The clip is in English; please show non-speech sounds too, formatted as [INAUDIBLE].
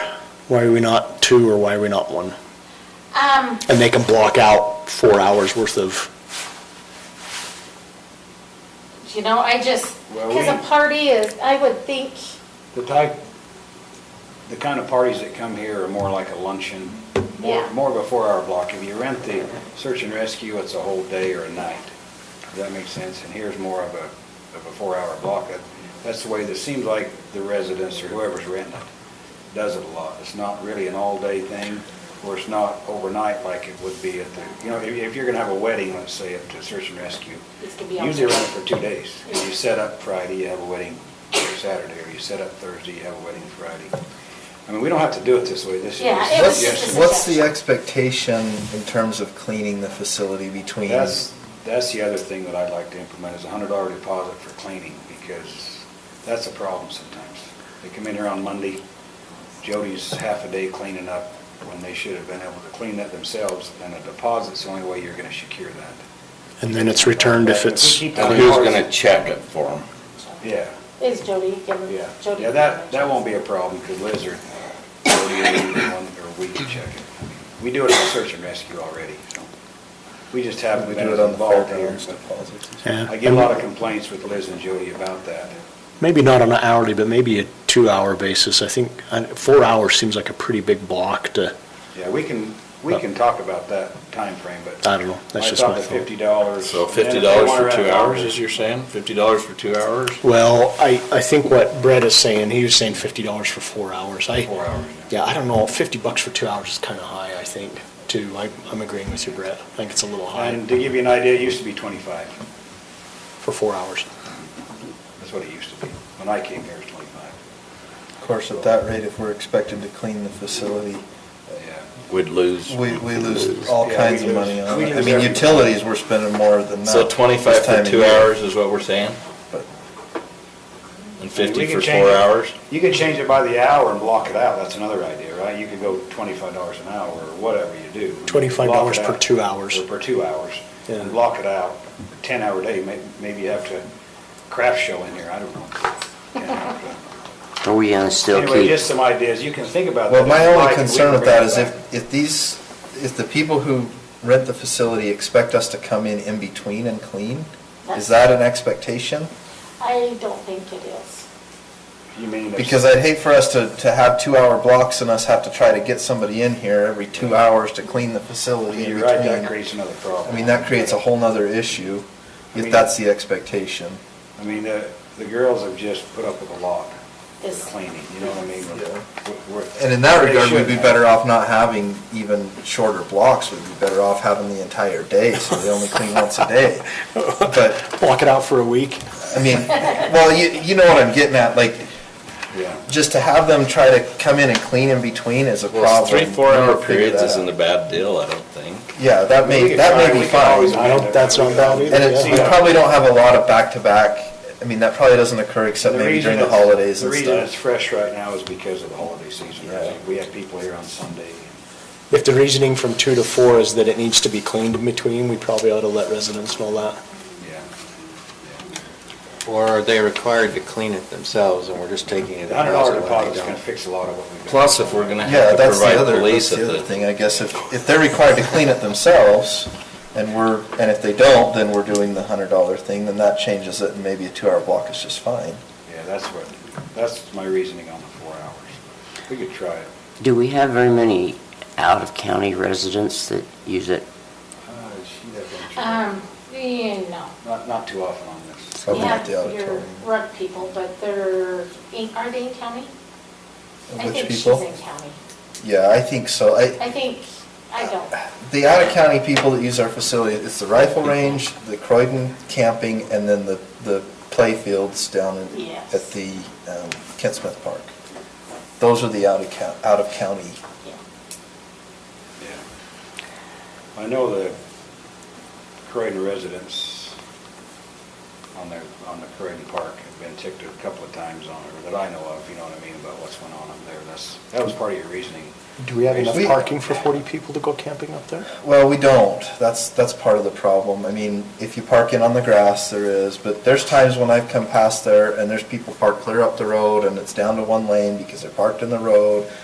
Why are we not two or why are we not one? Um, And they can block out four hours worth of, you know, I just, Well, because a we- party is, I would think, The type, the kind of parties that come here are more like a luncheon, Yeah. more, more of a four-hour block. If you rent the search and rescue, it's a whole day or a night. Does that make sense? And here's more of a, of a four-hour block. That- That's the way, that seems like the residents or whoever's renting it does it a lot. It's not really an all-day thing, or it's not overnight like it would be at the, you know, if, if you're gonna have a wedding, let's say, at the search and rescue, it's gonna be on. Usually run it for two days. If You set up Friday, you have a wedding Saturday, or you set up Thursday, you have a wedding Friday. I mean, we don't have to do it this way, this is Yeah, just it a was just a suggestion. What's the expectation in terms of cleaning the facility between? That's, that's the other thing that I'd like to implement, is a hundred dollar deposit for cleaning, because that's a problem sometimes. They come in here on Monday, Jody's half a day cleaning up, when they should have been able to clean that themselves, and a deposit's the only way you're gonna secure that. and then it's returned if it's. If we keep And that- clean. who's gonna check it for them? Yeah. Is Jody giving, Yeah, Jody. yeah, that, that won't be a problem, because Lizard, or we can check it. We do it on search and rescue already, so. We just haven't We been do it on the involved here. fairgrounds deposits. Yeah. I get a lot of complaints with Liz and Jody about that. Maybe not on an hourly, but maybe a two-hour basis. I think, uh, four hours seems like a pretty big block to, Yeah, we can, we can talk about that time frame, but. I don't know. That's just I my thought the thought. fifty dollars. So fifty dollars for two hours, as you're saying? Fifty dollars for two hours? well, I, I think what Brett is saying, he was saying fifty dollars for four hours. I, Four hours, yeah, I don't know, fifty bucks for two hours is kind of high, I think, too. I, I'm agreeing with you, Brett. I think it's a little high And to give you an idea, it used to be twenty-five. for four hours. That's what it used to be. When I came here, it was twenty-five. Of course, at that rate, if we're expected to clean the facility, Yeah. We'd lose. we, we lose all Yeah, kinds we of lose- money on we it. I lose mean, everything. utilities, we're spending more than that. So this twenty-five for time of two year. hours is what we're saying? But And I mean, we fifty could for change four it- hours? You could change it by the hour and block it out, that's another idea, right? You could go twenty-five dollars an hour, or whatever you do. $25 Block it per out. two hours. Or per two hours, Yeah. and block it out, ten-hour day, may- maybe you have to craft show in here, [LAUGHS] I don't know. You know, Are we gonna but still Anyway, keep, just some ideas, you can think about that. Well, my If you'd like, only we concern can with bring that is back. if, if these, if the people who rent the facility expect us to come in in between and clean, is That's- that an expectation? I don't think it is. You mean if- Because I'd hate for us to, to have two-hour blocks and us have to try to get somebody in here every two hours to clean the facility in You're right, that between. creates another problem. I mean, that creates a whole nother issue, I mean- if that's the expectation. I mean, the, the girls have just put up with a lot Yes. of cleaning, you know what I mean? Yeah. We're- we're- And in that they regard, we'd should be have. better off not having even shorter blocks, we'd be better off having the entire day, so they only clean once a day. But Block it out for a week. I mean, well, you, you know what I'm getting at, like, Yeah. just to have them try to come in and clean in between is a Well, problem. three, We'll four-hour figure periods that isn't a out. bad deal, I don't think. Yeah, that We may, could that try, may we be could always fine. I don't- that's not bad either, And it's, we Yeah. probably don't have a lot of back-to-back, I mean, that probably doesn't occur except The maybe reason during the it's- holidays and The reason it's stuff. fresh right now is because of the holiday season. Yeah. We have people here on Sunday. If the reasoning from two to four is that it needs to be cleaned in between, we probably ought to let residents know that. Yeah. Or are they required to clean it themselves and we're just taking it? The hundred dollar deposit's don't? gonna fix a lot of what we've got. Plus, if we're gonna Yeah, have to that's the provide other, that's police at the other the, thing, I guess, if, if they're required to clean it themselves, and we're, and if they don't, then we're doing the hundred dollar thing, then that changes it, and maybe a two-hour block is just fine. Yeah, that's what, that's my reasoning on the four hours. We could try it. do we have very many out-of-county residents that use it? Uh, she'd have to- Um, you know. Not, not too often on this. Probably You not the have your auditorium. rug people, but they're, in- are they in county? I Which think she's people? in county. Yeah, I think so. I, I think, I don't. The out-of-county people that use our facility, it's the rifle range, the Croydon camping, and then the, the play fields down in- Yes. at the um, Kent Smith Park. Those are the out-of-county, out-of-county. Yeah. Yeah. I know the Croydon residents on their, on the Croydon Park have been ticked a couple of times on it, that I know of, you know what I mean, about what's going on up there. That's, that was part of your reasoning. Do we have enough We- parking for forty people to go camping up there? Well, we don't. That's, that's part of the problem. I mean, if you park in on the grass, there is, but there's times when I've come past there and there's people parked clear up the road and it's down to one lane because they're parked in the road